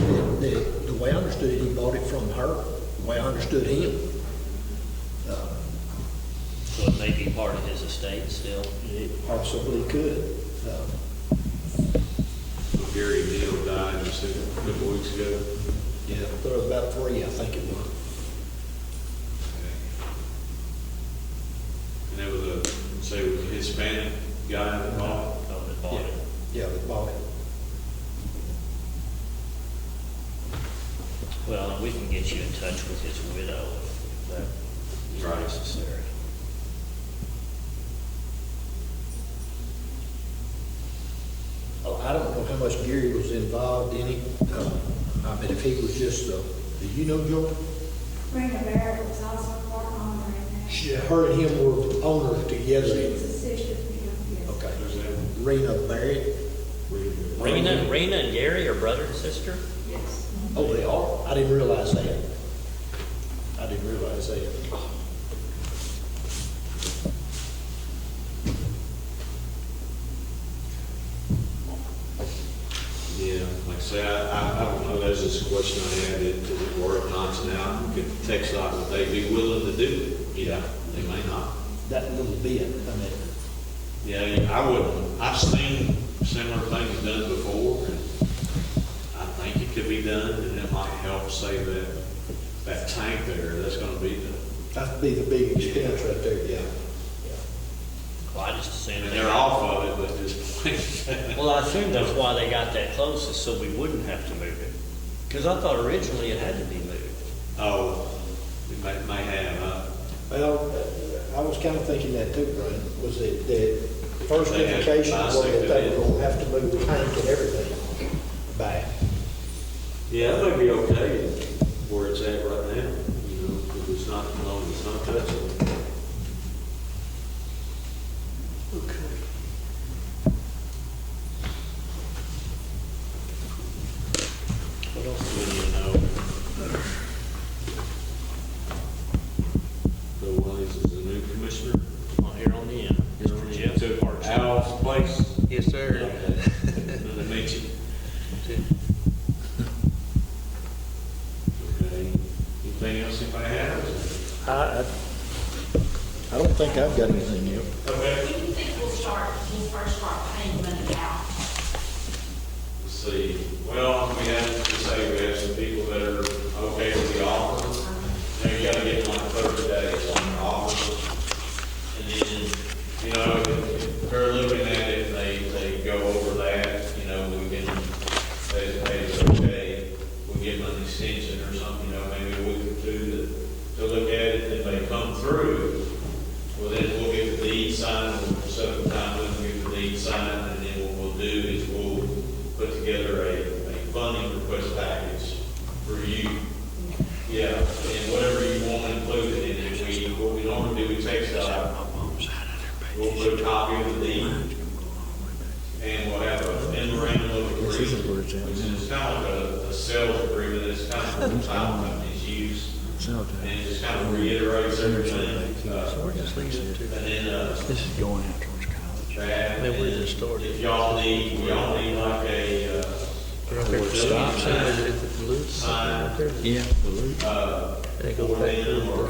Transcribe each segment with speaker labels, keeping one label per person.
Speaker 1: that, it- the way I understood it, he bought it from her, the way I understood him. Uh,
Speaker 2: So it may be part of his estate still.
Speaker 1: It possibly could. Um,
Speaker 3: Gary Neal died just a couple weeks ago.
Speaker 1: Yeah, there were about three, I think it was.
Speaker 3: And that was a, say, it was a Hispanic guy that bought.
Speaker 2: Oh, that bought it.
Speaker 1: Yeah, that bought it.
Speaker 2: Well, and we can get you in touch with his widow if that is
Speaker 3: Right.
Speaker 2: necessary.
Speaker 1: Oh, I don't know how much Gary was involved in it. Um, I mean, if he was just, uh, do you know Joy?
Speaker 4: Brenda Barrett was also part owner in that.
Speaker 1: She, her and him were the owners together.
Speaker 4: She was a sister to him, yes.
Speaker 1: Okay.
Speaker 3: There's that.
Speaker 1: Rena Barrett.
Speaker 2: Rena, Rena and Gary are brother and sister?
Speaker 4: Yes.
Speaker 1: Oh, they are? I didn't realize that. I didn't realize that.
Speaker 3: Yeah, like I say, I, I, I don't know, that's just a question I had, it, does it work, not now, we could text out, would they be willing to do it? Yeah, they may not.
Speaker 1: That little bit, I mean,
Speaker 3: Yeah, I wouldn't, I've seen similar things done before, and I think it could be done, and it might help save that, that tank there, that's gonna be the,
Speaker 1: that'd be the big expense right there, yeah.
Speaker 2: Well, I just assumed.
Speaker 3: and
Speaker 2: they-
Speaker 3: they're off of it, but just,
Speaker 2: Well, I assume that's why they got that close, is so we wouldn't have to move it. Because I thought originally it had to be moved.
Speaker 3: oh, it may, may have, uh,
Speaker 1: Well, uh, I was kind of thinking that too, Brian, was that the first
Speaker 3: They had
Speaker 1: indication was that
Speaker 3: bicycle
Speaker 1: they
Speaker 3: in.
Speaker 1: were gonna have to move the tank and everything back.
Speaker 3: yeah, that may be okay where it's at right now, you know, if it's not, as long as it's not touching. What else do we need to know? Bill Williams is the new commissioner.
Speaker 2: Well, here on the end, Mr. Jeff.
Speaker 3: Took Al's place.
Speaker 5: Yes, sir.
Speaker 3: Another mention. Okay, anything else if I have?
Speaker 1: I, I don't think I've got anything yet.
Speaker 3: Okay.
Speaker 6: When do you think we'll start, we'll first start paying money out?
Speaker 3: Let's see, well, we have to say we have some people that are okay with the offer. They gotta get like thirty days on the offer. And then, you know, if if they're looking at it, and they, they go over that, you know, we can, they, they, it's okay, we give them an extension or something, you know, maybe a week or two to, to look at it, if they come through, well, then we'll get the deed signed, and we'll set up a time, we'll get the deed signed, and then what we'll do is we'll put together a, a funding request package for you. Yeah, and whatever you want included in it, we, what we normally do, we text out, we'll put a copy of the deed, and we'll have a memorandum of agreement, which is kind of a, a sales agreement, it's kind of what the title companies use, and it just kind of reiterates everything. uh, and then, uh,
Speaker 5: This is going out towards college.
Speaker 3: that,
Speaker 5: Then we
Speaker 3: and
Speaker 5: just started.
Speaker 3: if y'all need, we all need like a, uh,
Speaker 5: Stop sign, is it the loop?
Speaker 3: sign,
Speaker 5: Yeah.
Speaker 3: uh,
Speaker 5: They go
Speaker 3: or
Speaker 5: back.
Speaker 3: them, or,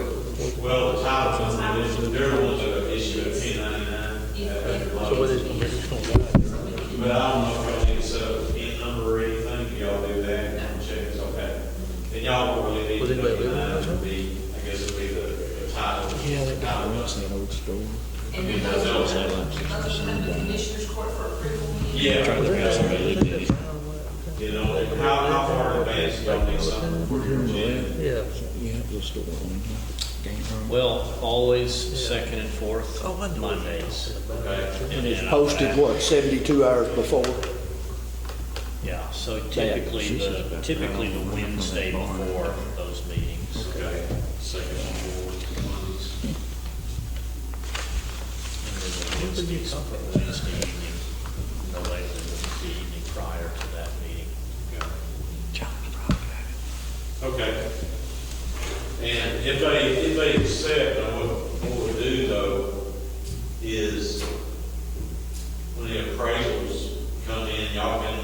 Speaker 3: well, the title company, this is their ones that issue a ten ninety-nine.
Speaker 5: Uh, So what is, we're just gonna ride it.
Speaker 3: But I don't know if y'all need to set up a pin number or anything, if y'all do that, and check it's okay. And y'all will really need
Speaker 5: Well,
Speaker 3: to
Speaker 5: then
Speaker 3: put
Speaker 5: they do.
Speaker 3: in mind, would be, I guess it'd be the the title.
Speaker 5: Yeah, that guy
Speaker 3: title company.
Speaker 5: runs that old store.
Speaker 6: And then those, those will come to the commissioners court for approval.
Speaker 3: Yeah. You know, how, how far advanced y'all need something for your gym?
Speaker 5: Yeah. Yeah, the store. on Game room.
Speaker 2: Well, always second and fourth Mondays.
Speaker 3: Okay,
Speaker 2: And
Speaker 1: It's
Speaker 2: then I-
Speaker 1: posted, what, 72 hours before?
Speaker 2: Yeah, so typically, the typically the Wednesday before those meetings.
Speaker 3: okay, second one, fourth,
Speaker 2: And then the Wednesday, something Wednesday evening, no later than the evening prior to that meeting.
Speaker 5: John's probably got it.
Speaker 3: okay. And if they, if they accept, now what, what we do though, is when the appraisals come in, y'all can uh,